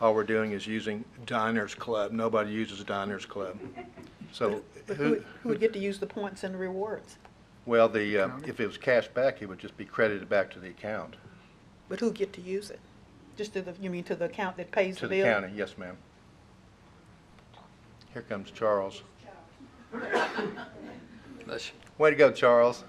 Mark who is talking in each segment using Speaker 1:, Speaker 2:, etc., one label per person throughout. Speaker 1: all we're doing is using Diners Club. Nobody uses Diners Club. So
Speaker 2: But who,
Speaker 1: who,
Speaker 2: would- who would get to use the points and the rewards?
Speaker 1: well, the, uh, if it was cash back, it would just be credited back to the account,
Speaker 2: But who get to use it? Just to the, you mean to the account that pays
Speaker 1: to
Speaker 2: the
Speaker 1: the
Speaker 2: bill?
Speaker 1: county. Yes, ma'am. Here comes Charles.
Speaker 3: Bless you.
Speaker 1: Way to go, Charles.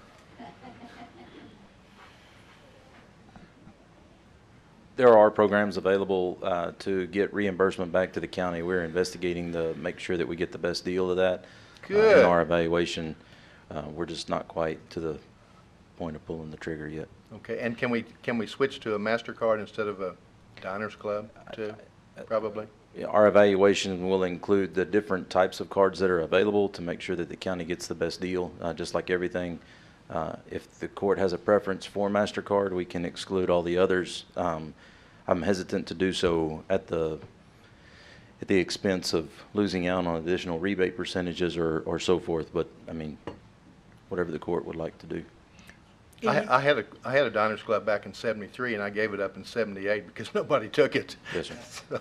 Speaker 4: There are programs available uh, to get reimbursement back to the county. We're investigating to make sure that we get the best deal of that. uh,
Speaker 1: Good.
Speaker 4: In our evaluation, Uh, we're just not quite to the point of pulling the trigger yet.
Speaker 1: Okay, and can we, can we switch to a MasterCard instead of a Diners Club too? Probably.
Speaker 4: Yeah, Our evaluation will include the different types of cards that are available to make sure that the county gets the best deal, uh, just like everything. Uh, If the court has a preference for MasterCard, we can exclude all the others. Um, I'm hesitant to do so at the, at the expense of losing out on additional rebate percentages or, or so forth, but, I mean, whatever the court would like to do.
Speaker 2: And you-
Speaker 1: I, I had a, I had a Diners Club back in seventy-three and I gave it up in seventy-eight because nobody took it.
Speaker 4: Yes, sir.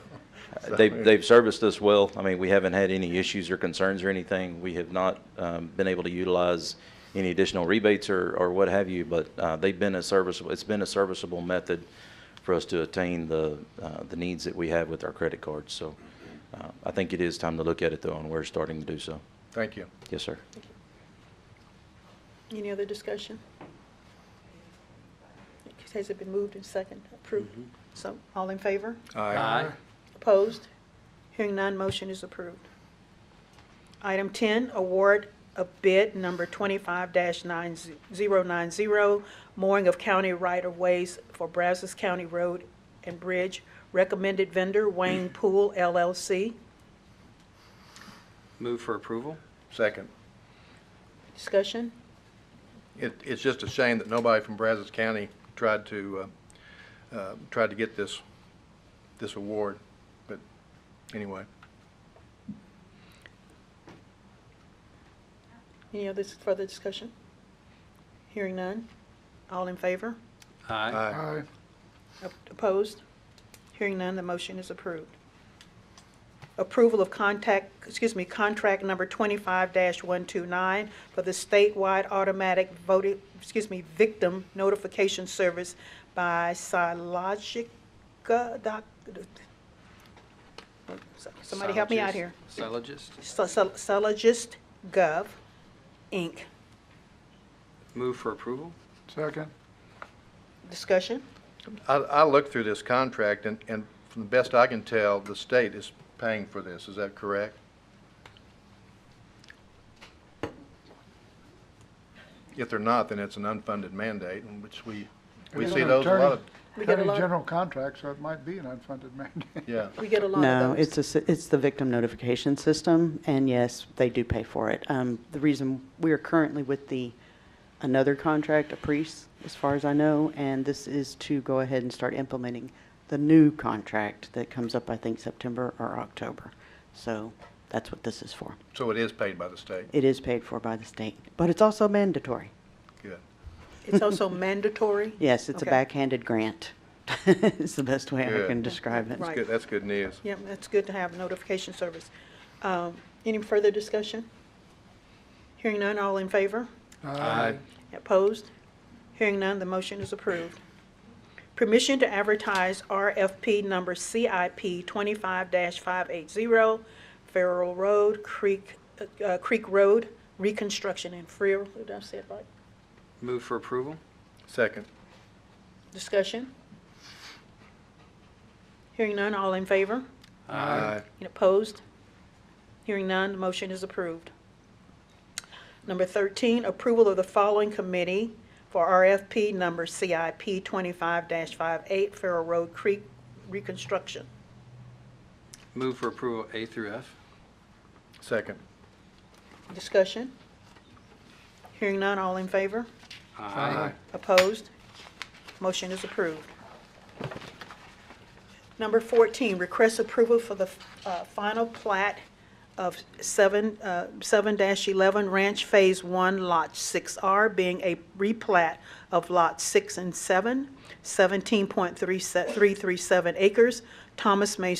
Speaker 1: So- so-
Speaker 4: They've, they've serviced us well. I mean, we haven't had any issues or concerns or anything. We have not um, been able to utilize any additional rebates or, or what have you, but uh, they've been a serviceable, it's been a serviceable method for us to attain the, uh, the needs that we have with our credit cards. So uh, I think it is time to look at it though, and we're starting to do so.
Speaker 1: Thank you.
Speaker 4: Yes, sir.
Speaker 2: Any other discussion? Has it been moved and second approved? So, all in favor?
Speaker 3: Aye.
Speaker 2: Opposed? Hearing none, motion is approved. Item 10, award of bid number 25-9090, mooring of county right-of-ways for Brazos County Road and Bridge. Recommended vendor Wayne Pool LLC.
Speaker 3: Move for approval?
Speaker 1: Second.
Speaker 2: Discussion?
Speaker 1: It, it's just a shame that nobody from Brazos County tried to, uh, uh, tried to get this, this award, but anyway.
Speaker 2: Any other further discussion? Hearing none. All in favor?
Speaker 3: Aye.
Speaker 2: Opposed? Hearing none, the motion is approved. Approval of contact, excuse me, contract number 25-129 for the statewide automatic voting, excuse me, victim notification service by Silogica, doc, somebody help me out here.
Speaker 3: Silogist?
Speaker 2: Silogist Gov, Inc.
Speaker 3: Move for approval?
Speaker 5: Second.
Speaker 2: Discussion?
Speaker 1: I, I looked through this contract and, and from the best I can tell, the state is paying for this. Is that correct? If they're not, then it's an unfunded mandate, in which we, we
Speaker 5: It's
Speaker 1: see
Speaker 5: an
Speaker 1: those a lot of,
Speaker 2: We get a
Speaker 5: Attorney
Speaker 2: lot-
Speaker 5: General contract, so it might be an unfunded mandate.
Speaker 1: yeah.
Speaker 2: We get a lot of those.
Speaker 6: No, it's a, s- it's the victim notification system, and yes, they do pay for it. Um, the reason, we are currently with the, another contract, a priest, as far as I know, and this is to go ahead and start implementing the new contract that comes up, I think, September or October. So that's what this is for.
Speaker 1: So it is paid by the state.
Speaker 6: It is paid for by the state, but it's also mandatory.
Speaker 1: Good.
Speaker 2: It's also mandatory?
Speaker 6: Yes, it's a
Speaker 2: Okay.
Speaker 6: backhanded grant. It's the best way I
Speaker 1: Good.
Speaker 6: can describe it.
Speaker 1: That's
Speaker 2: Right.
Speaker 1: good, that's good news.
Speaker 2: Yeah, it's good to have notification service. Um, Any further discussion? Hearing none, all in favor?
Speaker 1: Aye.
Speaker 2: Opposed? Hearing none, the motion is approved. Permission to advertise RFP number CIP 25-580, Farrell Road, Creek, uh, Creek Road, reconstruction in Freer. Did I say it right?
Speaker 3: Move for approval?
Speaker 1: Second.
Speaker 2: Discussion? Hearing none, all in favor?
Speaker 1: Aye.
Speaker 2: And opposed? Hearing none, the motion is approved. Number 13, approval of the following committee for RFP number CIP 25-58 Farrell Road Creek Reconstruction.
Speaker 3: Move for approval A through F?
Speaker 1: Second.
Speaker 2: Discussion? Hearing none, all in favor?
Speaker 3: Aye.
Speaker 2: Opposed? Motion is approved. Number 14, request approval for the uh, final plat of 7, uh, 7-11 Ranch Phase 1, Lot 6R, being a replat of Lot 6 and 7, 17.337 acres, Thomas May